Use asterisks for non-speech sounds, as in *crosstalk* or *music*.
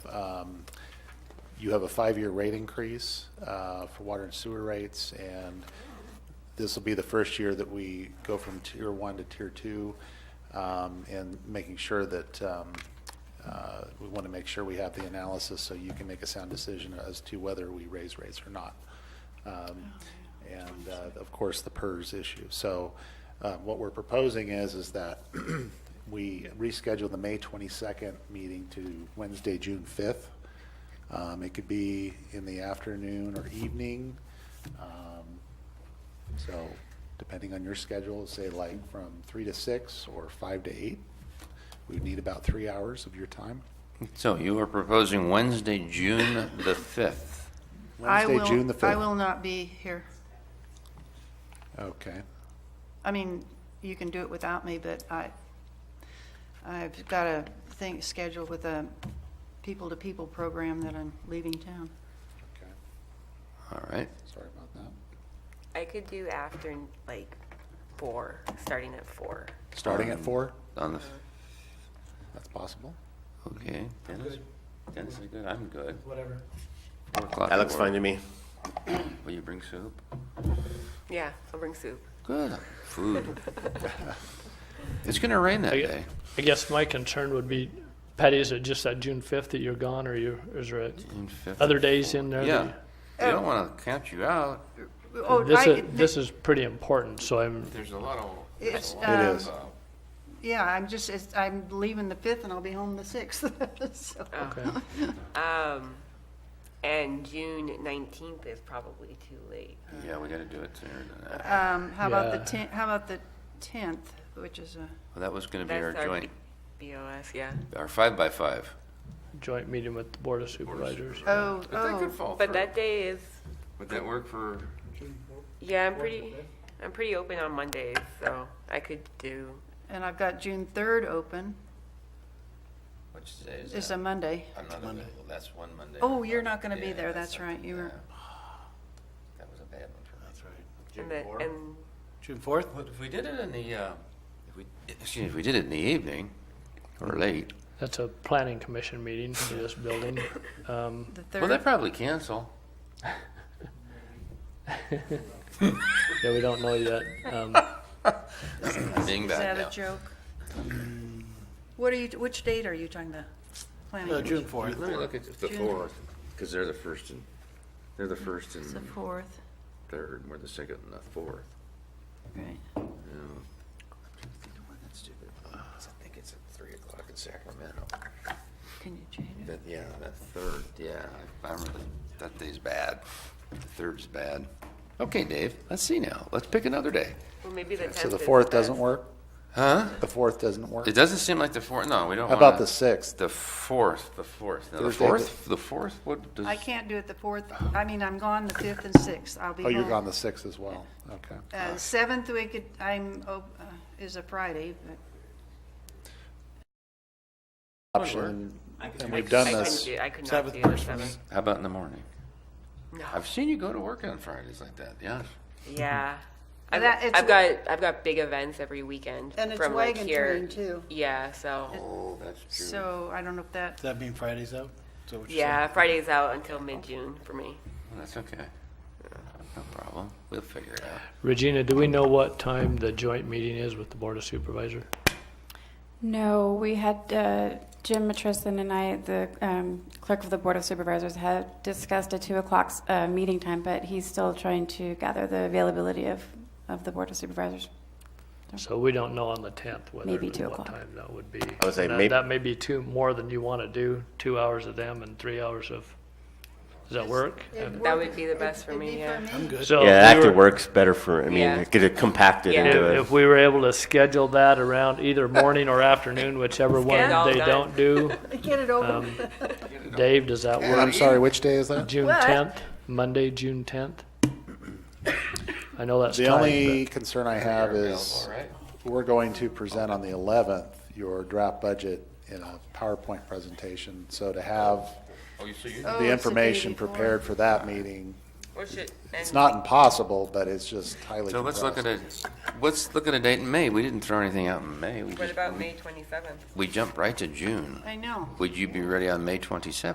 Um, you have a five-year rate increase uh, for water and sewer rates, and this will be the first year that we go from tier one to tier two, um, and making sure that, um, uh, we want to make sure we have the analysis so you can make a sound decision as to whether we raise rates or not. Um, And, uh, of course, the PERS issue. So uh, what we're proposing is, is that *clears throat* we reschedule the May 22nd meeting to Wednesday, June 5th. Um, It could be in the afternoon or evening. Um, so depending on your schedule, say like from three to six or five to eight, we would need about three hours of your time. So you are proposing Wednesday, June the 5th. I Wednesday, will- June the I fifth. will not be here. Okay, I mean, you can do it without me, but I, I've got a thing scheduled with a people-to-people program that I'm leaving town. okay, All right. sorry about that. I could do after like four, starting at four. Starting at Um, four, On the, f- that's possible. okay. Dennis? Dennis is good. I'm good. Whatever. Four o'clock. That looks will work. fine to me. Will you bring soup? Yeah, I'll bring soup. Good. Food. It's gonna rain that I- day. I guess my concern would be, Patty, is it just that June fifth that you're gone, or you, is there a- June 5th. other days in there? that Yeah. you- We don't want to count you out. Oh, This I- is, this is pretty important, so I'm, There's a lot of. It's, It um, is, Yeah, I'm just, it's- I'm leaving the 5th and I'll be home the 6th. *laughs* So, Oh. okay. Um, and June nineteenth is probably too late. Yeah, we gotta do it sooner than that. um, How about the Yeah. 10th, how about the 10th, which is a, Well, that was gonna be our That's our- joint, BOS, yeah. our five by five. Joint meeting with the Board of Supervisors. oh, That could oh, fall But through. that day is, Would that work for? yeah, I'm pretty, I'm pretty open on Mondays, so I could do, and I've got June 3rd open. Which day It's a Monday. I'm not available. That's one Monday. Oh, you're not going to be there, that's right, you were, That was a bad one for me. That's right. and the, and June fourth? But if we did it in the, uh, if we, excuse me, if we did it in the evening or late, That's a planning commission meeting for this building. Um, the well, they 3rd. probably cancel. Yeah, we don't know yet. Um, Being Is back that a now. joke? What are you, which date are you talking about? Uh, Planning? June Let me look at the June. fourth, because they're the first and, they're the first and It's the 4th, third, and we're the second and the fourth. right. Yeah. That's stupid. I think it's at three o'clock in Sacramento. Can you change it? That, yeah, that third, Yeah, I I remember that- that day's bad. The third's bad. Okay, Dave, let's see now. Let's pick another day. well, maybe the tenth So the fourth doesn't work? Huh? The fourth doesn't work? It doesn't seem like the fourth, no, we don't How want about the sixth? The fourth, the fourth. Now, the Thursday, fourth, the fourth, what does? I can't do it the 4th, I mean, I'm gone the 5th and 6th, I'll be Oh, home. you're gone the sixth as well, okay. Uh, Seventh, we could, I'm, op- uh, is a Friday, but Option, and we've I done couldn't this, do, I could not do the seventh. How about in the morning? No. I've seen you go to work on Fridays like that, yes. Yeah. I've, That- it's- I've got I've got big events every weekend And it's from like wagon here. train, too. Yeah, so Oh, that's so I don't know if that, Does that mean Friday's out? Is that what you're yeah, saying? Friday's out until mid June for me. Well, Oh, That's okay. No problem. We'll figure it out. Regina, do we know what time the joint meeting is with the Board of Supervisor? No, we had uh, Jim Matrison and I, the um, clerk of the Board of Supervisors, had discussed a 2 o'clock uh, meeting time, but he's still trying to gather the availability of, of the Board of Supervisors. So we don't know on the tenth whether, Maybe two what o'clock. time that would be. I would say That- maybe- That may be two, more than you want to do, two hours of them and three hours of, does that work? Um, That would be the best for it'd me. be Yeah. for me. So Yeah, if that we actually were- works better for, I mean, Yeah. get it compacted Yeah. into If, it. if we were able to schedule that around either morning or afternoon, whichever one it all they done. don't do, get it Uh, over with. Dave, does that work? I'm sorry, which day is that? June What? tenth, Monday, June tenth? I know that's The tight, only concern I have is, All right. We're going to present on the 11th your draft budget in a PowerPoint presentation. So to have Oh, you see, Oh, it's the the day information before. prepared for that meeting, Or should, it's and- not impossible, but it's just highly So let's look at compressed. a, let's look at a date in May. We didn't throw anything out in May. We What just, about May twenty seventh? we jumped right to June. I know. Would you be ready on May twenty-seventh?